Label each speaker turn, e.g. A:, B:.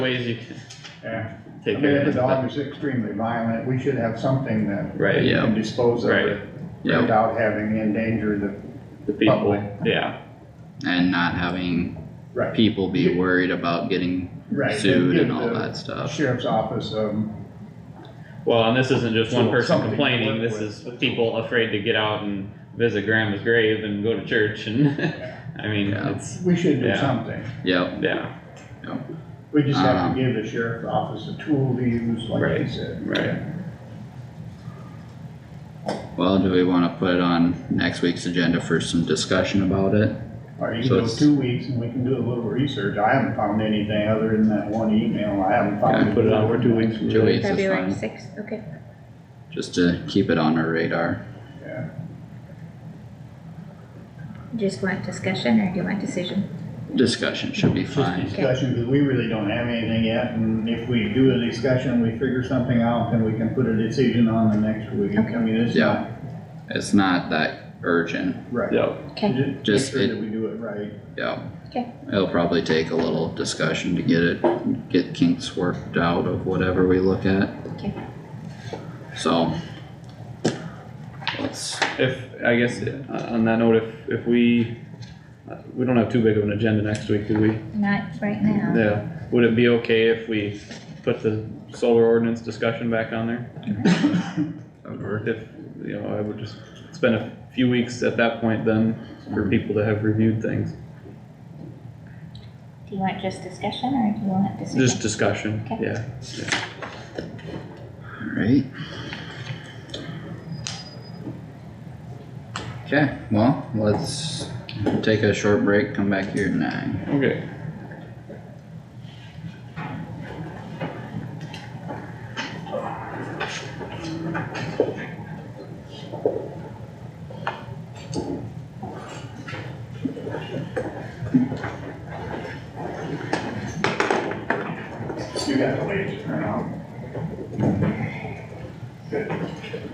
A: ways you can
B: Yeah, I
A: take
B: mean,
A: care
B: if the
A: of
B: dog
A: it.
B: is extremely violent, we should have something that
A: Right,
B: we
A: yeah,
B: can dispose of
A: Right.
B: it
C: Yep,
B: without having endanger the,
A: the people,
B: Public.
A: yeah,
C: and not having
B: right.
C: people be worried about getting
B: Right.
C: sued
B: give
C: and all
B: the
C: that stuff.
B: Sheriff's office, um,
A: well, and this isn't just one
B: So
A: person
B: something to
A: complaining,
B: work
A: this is
B: with.
A: people afraid to get out and visit grandma's grave and go to church and, I mean,
C: Yeah.
A: it's,
B: we should do
A: Yeah.
B: something.
C: Yep,
A: yeah,
B: We just have
C: Um,
B: to give the sheriff's office a tool to use, like you
A: Right,
B: said.
A: right.
C: well, do we wanna put it on next week's agenda for some discussion about it?
B: Or you
C: So
B: can go
C: it's-
B: two weeks and we can do a little research. I haven't found anything other than that one email. I haven't
C: Yeah,
B: found.
A: Put it on for two weeks.
C: Two weeks is
D: February
C: fine,
D: sixth, okay.
C: just to keep it on our radar.
B: Yeah.
D: Just want discussion or do you want decision?
C: Discussion should be
B: It's just
C: fine.
B: discussion, because we really don't have anything yet, and if we do a discussion, we figure something out, then we can put a decision on the next week. I
D: Okay.
B: mean, it's not,
C: It's not that urgent,
B: right.
A: Yep,
D: Okay,
B: Ju-
C: Just
B: Make
C: it-
B: sure that we do it right.
C: yeah.
D: Okay.
C: It'll probably take a little discussion to get it, get kinks worked out of whatever we look at,
D: okay.
C: so. Let's,
A: if, I guess, uh, on that note, if, if we, uh, we don't have too big of an agenda next week, do we?
D: Not right now.
A: Yeah, would it be okay if we put the solar ordinance discussion back on there? If, you know, I would just spend a few weeks at that point then for people to have reviewed things,
D: Do you want just discussion or do you want
A: just
D: decision?
A: discussion,
D: Okay.
A: yeah.
C: Alright. Okay, well, let's take a short break, come back here at nine.
A: Okay.
B: You got to wait, turn out.